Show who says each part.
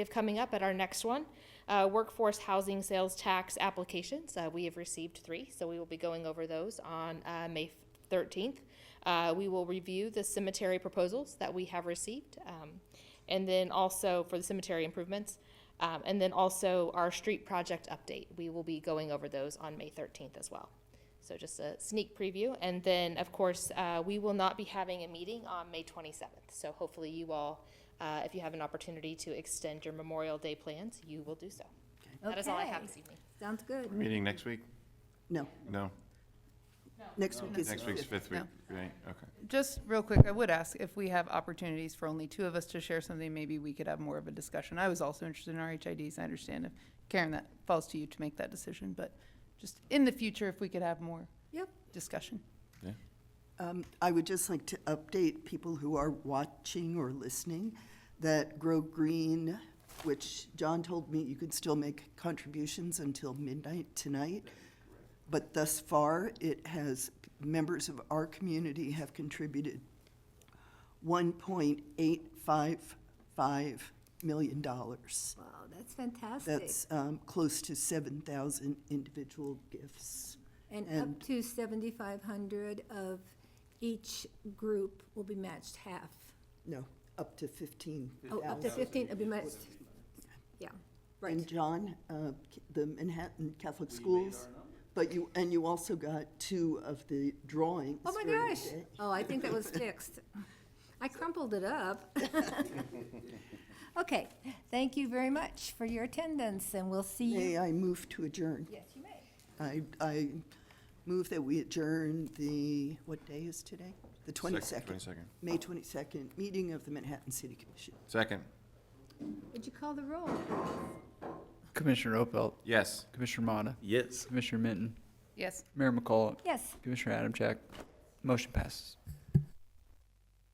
Speaker 1: have coming up at our next one, uh, workforce housing sales tax applications. Uh, we have received three, so we will be going over those on uh, May 13th. Uh, we will review the cemetery proposals that we have received, um, and then also for the cemetery improvements, um, and then also our street project update. We will be going over those on May 13th as well. So just a sneak preview. And then, of course, uh, we will not be having a meeting on May 27th. So hopefully you all, uh, if you have an opportunity to extend your Memorial Day plans, you will do so. That is all I have
Speaker 2: Okay.
Speaker 1: this evening.
Speaker 2: Sounds good.
Speaker 3: Meeting next week?
Speaker 2: No,
Speaker 3: No?
Speaker 2: next week is.
Speaker 3: Next week's
Speaker 2: fifth.
Speaker 3: fifth week, right, okay.
Speaker 4: Just real quick, I would ask if we have opportunities for only two of us to share something, maybe we could have more of a discussion. I was also interested in RHIDs. I understand if, Karen, that falls to you to make that decision, but just in the future, if we could have more
Speaker 2: Yep.
Speaker 4: discussion.
Speaker 2: Um, I would just like to update people who are watching or listening that Grow Green, which John told me you could still make contributions until midnight tonight. But thus far, it has, members of our community have contributed $1.855 million.
Speaker 5: Wow, that's fantastic.
Speaker 2: That's um, close to 7,000 individual gifts.
Speaker 5: And
Speaker 2: and-
Speaker 5: up to seventy-five hundred of each group will be matched half.
Speaker 2: No, up to 15,000.
Speaker 5: Oh, up to fifteen, it'll be matched, yeah,
Speaker 2: And
Speaker 5: right.
Speaker 2: John, uh, K- the Manhattan Catholic Schools, but you, and you also got two of the drawings.
Speaker 5: Oh, my
Speaker 2: during the
Speaker 5: gosh.
Speaker 2: day.
Speaker 5: Oh, I think that was fixed. I crumpled it up. Okay, thank you very much for your attendance, and we'll see
Speaker 2: May
Speaker 5: you.
Speaker 2: I move to adjourn?
Speaker 5: Yes, you may.
Speaker 2: I, I move that we adjourn the, what day is today? The 22nd,
Speaker 3: Twenty-second.
Speaker 2: May 22nd, meeting of the Manhattan City Commission.
Speaker 3: Second,
Speaker 5: Would you call the roll?
Speaker 6: Commissioner Opelt,
Speaker 3: yes.
Speaker 6: Commissioner Motta,
Speaker 7: Yes.
Speaker 6: Commissioner Minton,
Speaker 4: Yes.
Speaker 6: Mayor McCullough,
Speaker 5: Yes,
Speaker 6: Commissioner Adamchak. Motion passes.